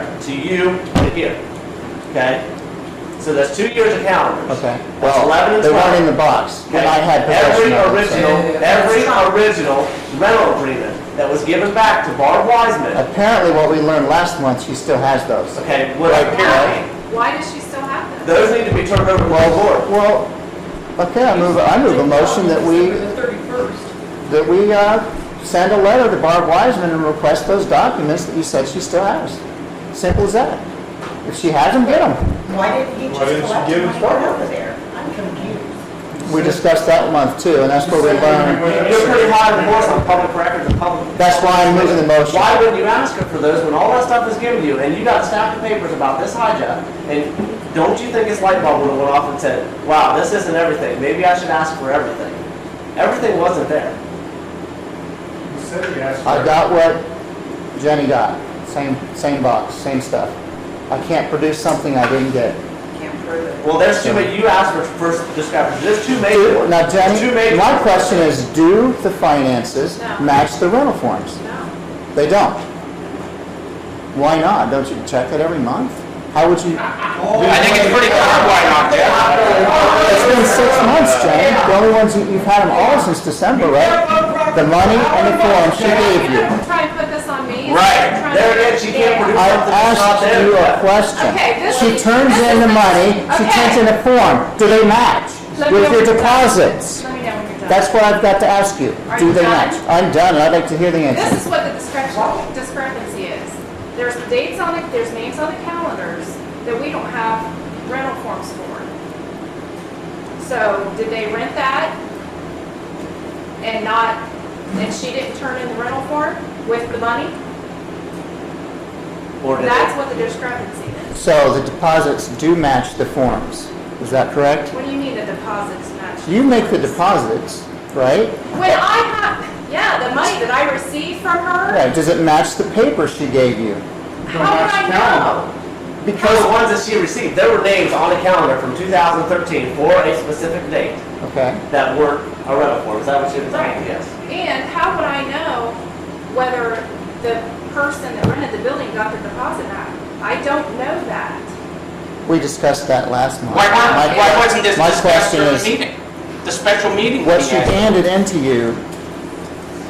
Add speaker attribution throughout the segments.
Speaker 1: to you to here, okay? So that's two years of calendars.
Speaker 2: Okay.
Speaker 1: That's 11 and
Speaker 2: They weren't
Speaker 1: 12.
Speaker 2: in the box
Speaker 1: Okay?
Speaker 2: when I had
Speaker 1: Every
Speaker 2: possession of them, so-
Speaker 1: original, every original rental agreement that was given back to Barb Wiseman,
Speaker 2: Apparently, what we learned last month, she still has those.
Speaker 1: okay, was
Speaker 2: Right.
Speaker 1: apparently,
Speaker 3: Why does she still have them?
Speaker 1: those need to be turned over to the board.
Speaker 2: Well, okay, I move, I move a motion that we, that we uh, send a letter to Barb Wiseman and request those documents that you said she still has. Simple as that. If she has them, get them.
Speaker 4: Why didn't he just
Speaker 5: Why didn't she
Speaker 4: collect
Speaker 5: give
Speaker 4: them
Speaker 5: it
Speaker 4: and
Speaker 5: to
Speaker 4: go
Speaker 5: her?
Speaker 4: over there? I'm confused.
Speaker 2: We discussed that month too, and that's where we learned.
Speaker 1: You're pretty high on the horse on public records and public.
Speaker 2: That's why I'm moving the motion.
Speaker 1: Why wouldn't you ask her for those when all that stuff is given to you and you got a stack of papers about this hijack? And don't you think it's light bulb would have went off and said, wow, this isn't everything. Maybe I should ask for everything. Everything wasn't there.
Speaker 5: He said he asked for
Speaker 2: I
Speaker 5: it.
Speaker 2: got what Jenny got. Same, same box, same stuff. I can't produce something I didn't get.
Speaker 4: Can't prove it.
Speaker 1: Well, there's two, ma- you asked for first discovery. There's two major
Speaker 2: Do-
Speaker 1: ones.
Speaker 2: Now,
Speaker 1: There's two
Speaker 2: Jenny,
Speaker 1: major
Speaker 2: my
Speaker 1: ones.
Speaker 2: question is, do the finances
Speaker 3: No.
Speaker 2: match the rental forms?
Speaker 3: No.
Speaker 2: They don't. Why not? Don't you check it every month? How would you?
Speaker 6: I think it's pretty clear why not there.
Speaker 2: It's been six months, Jane. The only ones, you- you've had them all since December, right? The money and the form she gave
Speaker 3: You're
Speaker 2: you.
Speaker 3: gonna try and put this on
Speaker 6: Right.
Speaker 3: me? You're trying to-
Speaker 1: There it is. She can't produce
Speaker 2: I
Speaker 1: something that's not
Speaker 2: asked
Speaker 1: there.
Speaker 2: you a
Speaker 1: yet.
Speaker 2: question.
Speaker 3: Okay, this
Speaker 2: She
Speaker 3: is-
Speaker 2: turns
Speaker 3: this
Speaker 2: in
Speaker 3: is
Speaker 2: the
Speaker 3: the-
Speaker 2: money, she
Speaker 3: okay.
Speaker 2: turns in a form. Do they match
Speaker 3: Let
Speaker 2: with
Speaker 3: me know
Speaker 2: your
Speaker 3: when you're done.
Speaker 2: deposits?
Speaker 3: Let me know when you're done.
Speaker 2: That's what I've got to ask you.
Speaker 3: Are
Speaker 2: Do
Speaker 3: you
Speaker 2: they
Speaker 3: done?
Speaker 2: match? I'm done, and I'd like to hear the
Speaker 3: This
Speaker 2: answer.
Speaker 3: is what the discrepan- discrepancy is. There's dates on it, there's names on the calendars that we don't have rental forms for. So did they rent that and not, and she didn't turn in the rental form with the money?
Speaker 1: Or did
Speaker 3: That's
Speaker 1: it?
Speaker 3: what the discrepancy is.
Speaker 2: So the deposits do match the forms. Is that correct?
Speaker 3: What do you mean the deposits match?
Speaker 2: You make the deposits, right?
Speaker 3: When I have, yeah, the money that I receive from her,
Speaker 2: Right, does it match the paper she gave you?
Speaker 3: how would I know?
Speaker 1: Because the ones that she received, there were names on the calendar from 2013 for a specific date
Speaker 2: Okay,
Speaker 1: that weren't a rental form. Is that what she was saying? Yes.
Speaker 3: And how would I know whether the person that rented the building got their deposit back? I don't know that.
Speaker 2: we discussed that last month.
Speaker 6: Why,
Speaker 2: My-
Speaker 6: why, why wasn't this
Speaker 2: My
Speaker 6: discussed
Speaker 2: question
Speaker 6: during the
Speaker 2: is,
Speaker 6: meeting? The special meeting
Speaker 2: What
Speaker 6: was
Speaker 2: she
Speaker 6: had.
Speaker 2: handed in to you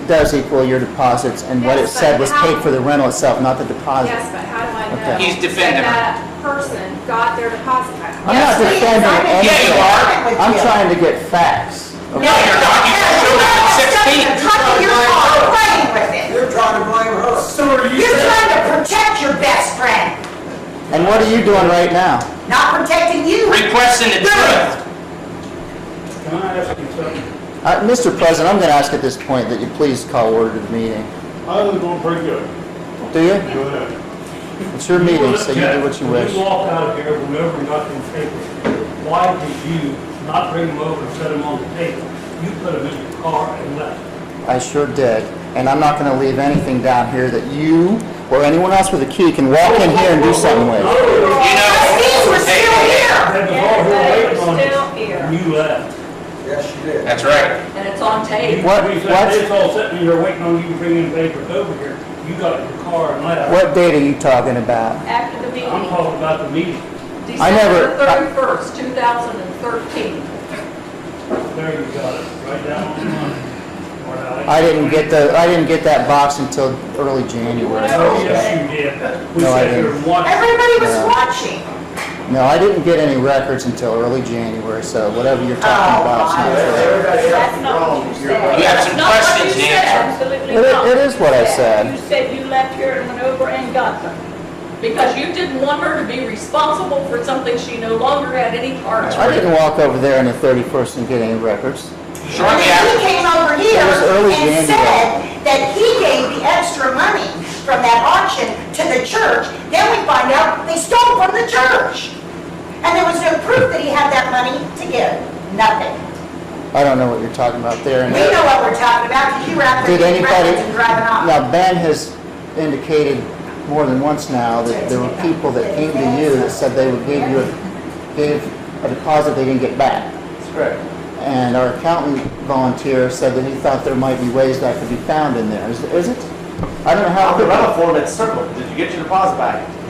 Speaker 2: does equal your deposits, and what it
Speaker 3: Yes, but
Speaker 2: said was paid
Speaker 3: how-
Speaker 2: for the rental itself, not the deposit.
Speaker 3: Yes, but how do I know?
Speaker 2: Okay.
Speaker 6: He's defending her.
Speaker 3: That that person got their deposit back.
Speaker 2: I'm not defending
Speaker 6: Yeah, you
Speaker 2: anything.
Speaker 6: are.
Speaker 2: I'm trying to get facts.
Speaker 6: No, you're not. You showed up at sixteen.
Speaker 4: Tucking your car, playing with it.
Speaker 7: You're trying to blame her.
Speaker 5: So are you
Speaker 4: You're
Speaker 5: saying,
Speaker 4: trying to protect your best friend,
Speaker 2: And what are you doing right now?
Speaker 4: not protecting you.
Speaker 6: Requesting the truth.
Speaker 5: can I ask you something?
Speaker 2: Uh, Mr. President, I'm going to ask at this point that you please call order to the meeting.
Speaker 5: I was going pretty good.
Speaker 2: Do you?
Speaker 5: Go ahead.
Speaker 2: It's your meeting, so you do what you
Speaker 5: When you
Speaker 2: wish.
Speaker 5: walk out of here, whenever you got them papers, why did you not bring them over and set them on the table? You put them in your car and left.
Speaker 2: I sure did. And I'm not going to leave anything down here that you or anyone else with a key can walk in here and do something
Speaker 5: No,
Speaker 2: with.
Speaker 5: no, no.
Speaker 6: You
Speaker 4: Trustees were
Speaker 6: know.
Speaker 4: still here.
Speaker 5: That was all here waiting on
Speaker 3: Still
Speaker 5: you.
Speaker 3: here.
Speaker 5: And you left.
Speaker 7: Yes, she did.
Speaker 6: That's right.
Speaker 4: And it's on
Speaker 5: You-
Speaker 4: tape.
Speaker 2: What-
Speaker 5: we said,
Speaker 2: what-
Speaker 5: It's all sitting here waiting on you to bring in papers over here. You got in your car and left.
Speaker 2: What date are you talking about?
Speaker 8: After the
Speaker 5: I'm
Speaker 8: meeting,
Speaker 5: talking about the meeting.
Speaker 2: I never-
Speaker 8: December thirty-first, two thousand and thirteen.
Speaker 5: There you got it, right down on the line. Or that-
Speaker 2: I didn't get the, I didn't get that box until early January.
Speaker 5: Oh, yes, you did. We
Speaker 2: No, I
Speaker 5: sat here
Speaker 2: didn't.
Speaker 5: and watched.
Speaker 4: Everybody was
Speaker 2: Yeah.
Speaker 4: watching.
Speaker 2: No, I didn't get any records until early January, so whatever you're talking
Speaker 4: Oh,
Speaker 2: about. is not
Speaker 4: my.
Speaker 2: correct.
Speaker 7: Everybody else
Speaker 8: That's
Speaker 7: is
Speaker 8: not
Speaker 7: wrong.
Speaker 8: what you
Speaker 7: You're
Speaker 8: said.
Speaker 6: You have some
Speaker 8: Not what you
Speaker 6: questions to
Speaker 8: said,
Speaker 6: answer.
Speaker 8: Absolutely
Speaker 2: It-
Speaker 8: not.
Speaker 2: it is what I said.
Speaker 8: You said you left here and went over and got them. Because you didn't want her to be responsible for something she no longer had any part
Speaker 2: I
Speaker 8: in.
Speaker 2: didn't walk over there on the 31st and get any records.
Speaker 4: And
Speaker 6: Shortly
Speaker 4: then he
Speaker 6: after,
Speaker 4: came over here
Speaker 2: It was early January.
Speaker 4: and said that he gave the extra money from that auction to the church. Then we find out they stole from the church. And there was no proof that he had that money to give. Nothing.
Speaker 2: I don't know what you're talking about there. and-
Speaker 4: We know what we're talking about because you were out there
Speaker 2: Did
Speaker 4: getting
Speaker 2: anybody-
Speaker 4: records and driving off.
Speaker 2: Now, Ben has indicated more than once now that there were people that came to you that said they would give you, a- give a deposit they didn't get back.
Speaker 1: That's correct.
Speaker 2: And our accountant volunteer said that he thought there might be ways that could be found in there. Is is it? I don't know how.
Speaker 1: On the rental form, it's circled. Did you get your deposit back?